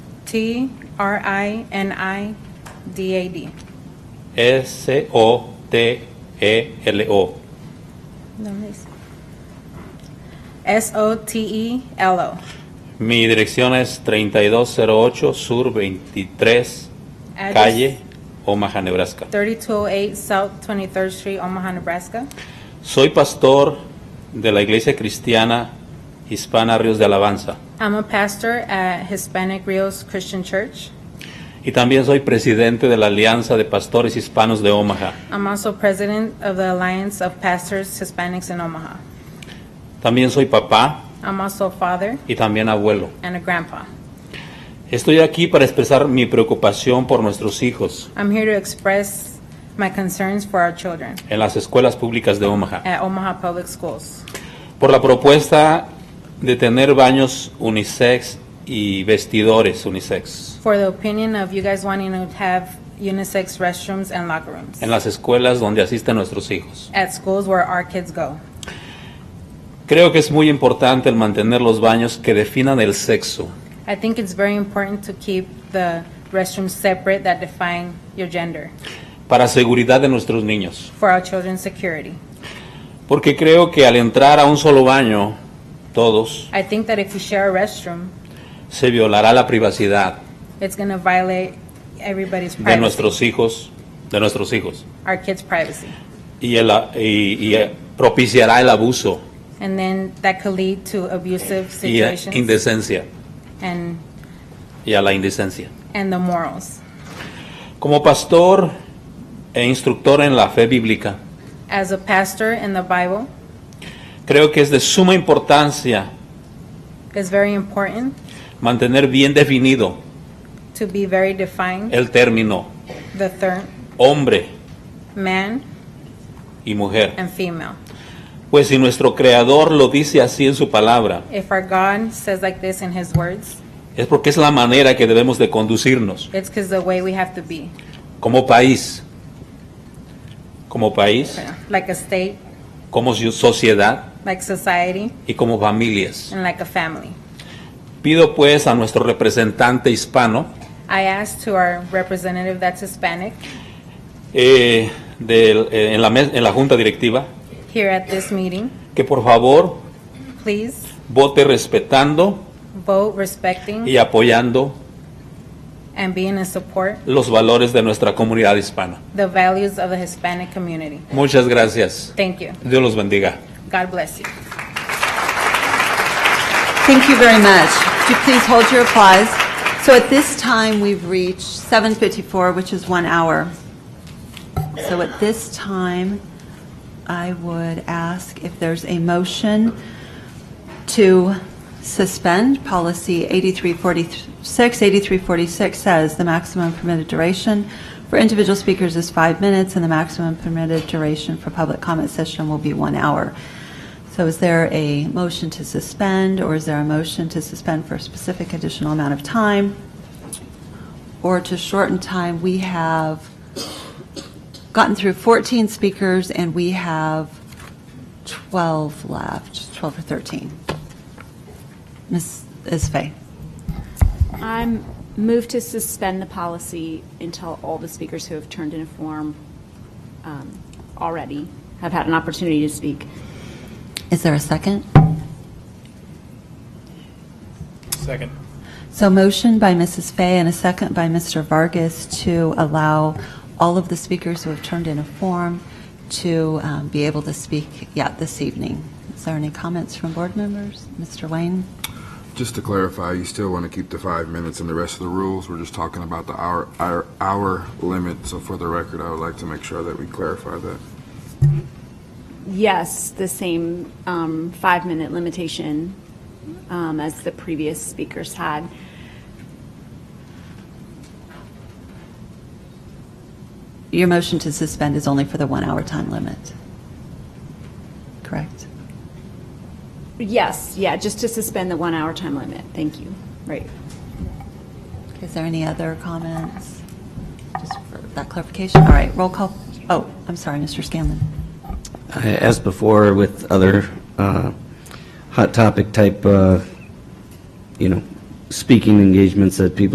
T R I N I D A D. E S-O-T-E-L-O. No me dice. S O T E L O. Mi dirección es 3208 Sur 23, Address- calle Omaha, Nebraska. 3208 South 23rd Street, Omaha, Nebraska. Soy pastor de la Iglesia Cristiana Hispana Ríos de Alabanza I'm a pastor at Hispanic Rios Christian Church. y también soy presidente de la Alianza de Pastores Hispanos de Omaha. I'm also president of the Alliance of Pastors Hispanics in Omaha. También soy papá I'm also a father y también abuelo. and a grandpa. Estoy aquí para expresar mi preocupación por nuestros hijos I'm here to express my concerns for our children en las escuelas públicas de Omaha. at Omaha Public Schools por la propuesta de tener baños unisex y vestidores unisex for the opinion of you guys wanting to have unisex restrooms and locker rooms en las escuelas donde asisten nuestros hijos. at schools where our kids go. Creo que es muy importante el mantener los baños que definan el sexo I think it's very important to keep the restrooms separate that define your gender para seguridad de nuestros niños, for our children's security. porque creo que al entrar a un solo baño, todos, I think that if you share a restroom, se violará la privacidad it's going to violate everybody's de privacy, nuestros hijos, de nuestros hijos, our kids' privacy. y, el- y- y propiciará el abuso And then that could lead to abusive y eh, situations indecencia and, y a la indecencia. and the morals. Como pastor e instructor en la fe bíblica, As a pastor in the Bible, creo que es de suma importancia it's very important mantener bien definido to be very defined. el término The third, hombre man y mujer. and female. Pues si nuestro Creador lo dice así en su palabra, If our God says like this in His words, es porque es la manera que debemos de conducirnos it's because the way we have to be, como país, como país, you know, like a state, como si- sociedad like society, y como familias. and like a family. Pido pues a nuestro representante hispano I asked to our representative that's Hispanic eh, del- eh, en la mes- en la junta directiva here at this meeting, que por favor please vote respetando vote respecting y apoyando and being in support los valores de nuestra comunidad hispana. the values of the Hispanic community. Muchas gracias. Thank you. Dios los bendiga. God bless you. Thank you very much. Could you please hold your applause? So at this time, we've reached 7:54, which is one hour. So at this time, I would ask if there's a motion to suspend policy 8346. 8346 says the maximum permitted duration for individual speakers is five minutes, and the maximum permitted duration for public comment session will be one hour. So is there a motion to suspend, or is there a motion to suspend for a specific additional amount of time? Or to shorten time, we have gotten through 14 speakers, and we have 12 left, 12 or 13. Ms. Isfay, I'm moved to suspend the policy until all the speakers who have turned in a form um, already have had an opportunity to speak. is there a second? Second. So motion by Mrs. Fay and a second by Mr. Vargas to allow all of the speakers who have turned in a form to um, be able to speak yet this evening. Is there any comments from board members? Mr. Wayne? Just to clarify, you still want to keep the five minutes and the rest of the rules? We're just talking about the hour, hour, hour limit, so for the record, I would like to make sure that we clarify that. Yes, the same um, five-minute limitation um, as the previous speakers had. Your motion to suspend is only for the one-hour time limit, correct? Yes, yeah, just to suspend the one-hour time limit. Thank you. Right. Is there any other comments? Just for that clarification, all right, roll call. Oh, I'm sorry, Mr. Scanlon. As before with other uh, hot topic type, uh, you know, speaking engagements that people